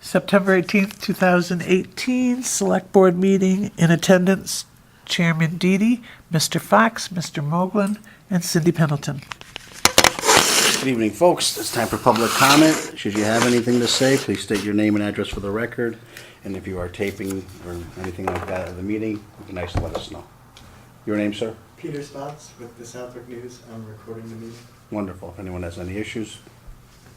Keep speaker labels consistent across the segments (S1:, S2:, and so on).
S1: September 18th, 2018, Select Board Meeting in attendance, Chairman Deedy, Mr. Fox, Mr. Moglen, and Cindy Pendleton.
S2: Good evening, folks. It's time for public comment. Should you have anything to say, please state your name and address for the record. And if you are taping or anything like that of the meeting, it'd be nice to let us know. Your name, sir?
S3: Peter Spots with the Southwick News. I'm recording the meeting.
S2: Wonderful. If anyone has any issues,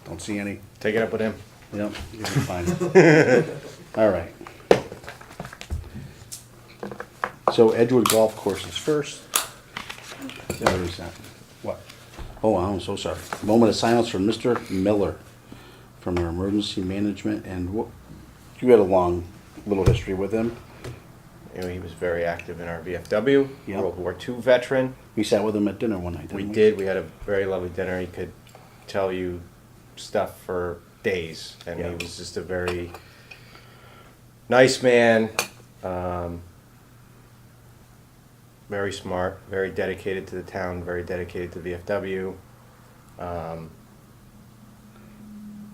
S2: don't see any,
S4: Take it up with him.
S2: yep, you'll be fine. All right. So Edgewood Golf Course is first. Where is that? What? Oh, I'm so sorry. Moment of silence for Mr. Miller from our Emergency Management and what, you had a long little history with him.
S4: You know, he was very active in our VFW,
S2: Yeah.
S4: World War II veteran.
S2: We sat with him at dinner one night, didn't
S4: We
S2: we?
S4: did. We had a very lovely dinner. He could tell you stuff for days, and
S2: Yeah.
S4: he was just a very nice man. Um, very smart, very dedicated to the town, very dedicated to VFW.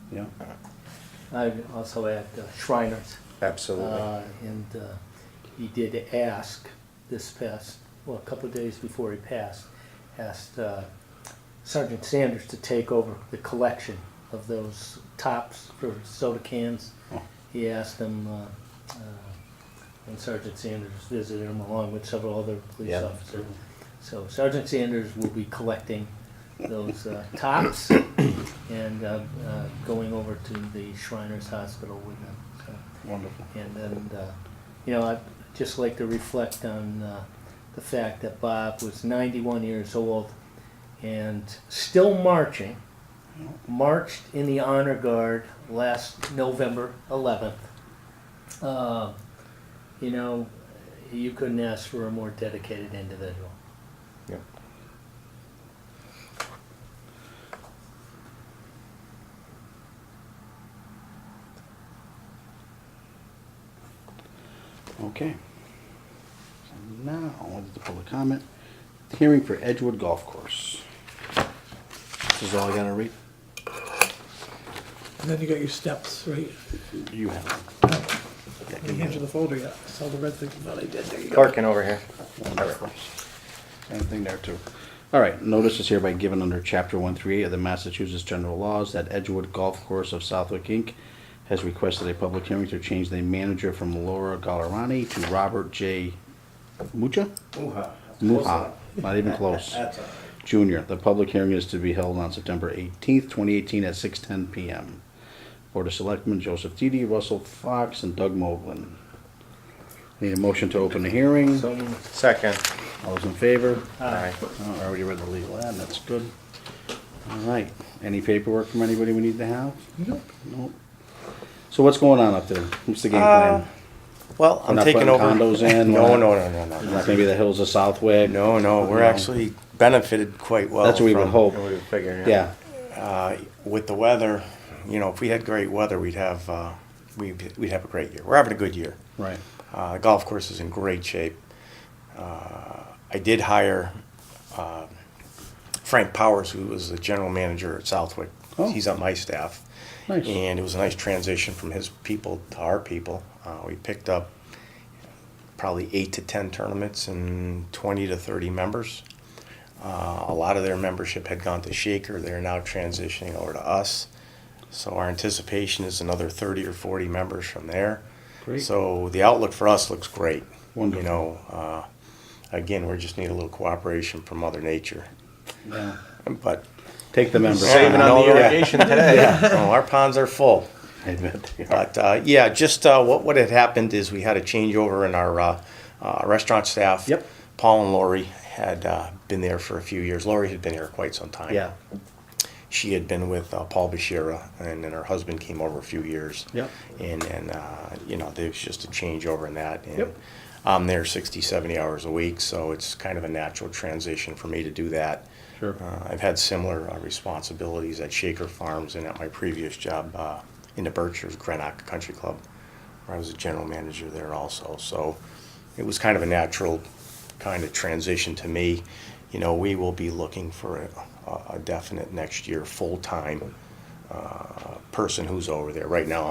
S2: Yeah,
S5: I also had uh, Shriners,
S4: Absolutely.
S5: uh, and uh, he did ask this past, well, a couple of days before he passed, asked uh, Sergeant Sanders to take over the collection of those tops for soda cans.
S2: Oh.
S5: He asked him, uh, uh, when Sergeant Sanders visited him along with several other police
S4: Yeah.
S5: officers. So Sergeant Sanders will be collecting those uh, tops and uh, uh, going over to the Shriners Hospital with them. So,
S2: wonderful.
S5: And then, uh, you know, I'd just like to reflect on uh, the fact that Bob was 91 years old and still marching. Marched in the Honor Guard last November 11th. Uh, you know, you couldn't ask for a more dedicated individual.
S4: yeah.
S2: Okay. So Now, on to the public comment. Hearing for Edgewood Golf Course. This is all I gotta read?
S6: And then you got your steps, right?
S2: You have it.
S6: I didn't hand you the folder yet. I saw the red thing, but I did. There you go.
S4: Clarkin over here.
S2: Wonderful. Same thing there too. All right, notice is hereby given under chapter one three of the Massachusetts General Laws that Edgewood Golf Course of Southwick Inc. has requested a public hearing to change the manager from Laura Gallerani to Robert J. Mucha? Muha, not even close. Junior, the public hearing is to be held on September eighteenth, twenty eighteen at six ten PM. Board of Selectmen Joseph Didi, Russell Fox, and Doug Moblin. Need a motion to open the hearing?
S5: So
S4: Second.
S2: All those in favor?
S4: Aye.
S2: Oh, I already read the legal ad, that's good. All right, any paperwork from anybody we need to have? Nope. Nope. So what's going on up there? What's the game plan?
S7: Well, I'm
S2: not
S7: taking
S2: putting
S7: over.
S2: condos in,
S7: no,
S2: we're
S7: no,
S2: not-
S7: no, no, no,
S2: It's
S7: no.
S2: not gonna be the hills of Southwick?
S7: No, no, we're
S2: No.
S7: actually benefited quite well.
S2: That's what we would
S7: from,
S2: hope,
S4: And we were figuring.
S2: yeah.
S7: Uh, with the weather, you know, if we had great weather, we'd have uh, we'd, we'd have a great year. We're having a good year.
S2: Right.
S7: Uh, the golf course is in great shape. Uh, I did hire uh, Frank Powers, who was the general manager at Southwick.
S2: Oh.
S7: He's on my staff.
S2: Nice.
S7: And it was a nice transition from his people to our people. Uh, we picked up probably eight to 10 tournaments and 20 to 30 members. Uh, a lot of their membership had gone to Shaker. They're now transitioning over to us. So our anticipation is another 30 or 40 members from there.
S2: Great.
S7: So the outlook for us looks great.
S2: Wonderful.
S7: You know, uh, again, we just need a little cooperation from Mother Nature.
S2: Yeah.
S7: But
S2: Take the members.
S4: Saving
S2: out.
S4: on the
S7: Yeah.
S4: irrigation today.
S7: oh, our ponds are full.
S2: I bet they are.
S7: But uh, yeah, just uh, what what had happened is we had a changeover in our uh, uh, restaurant staff.
S2: Yep.
S7: Paul and Lori had uh, been there for a few years. Lori had been here quite some time.
S2: Yeah,
S7: She had been with uh, Paul Bashira, and then her husband came over a few years.
S2: Yep.
S7: And and uh, you know there was just a changeover in that. And
S2: Yep.
S7: I'm there 60, 70 hours a week, so it's kind of a natural transition for me to do that.
S2: Sure.
S7: Uh, I've had similar uh, responsibilities at Shaker Farms and at my previous job uh, in the Berkshires, Greenock Country Club, where I was a general manager there also. So it was kind of a natural kind of transition to me. You know, we will be looking for a, a definite next year full time uh, person who's over there. Right now,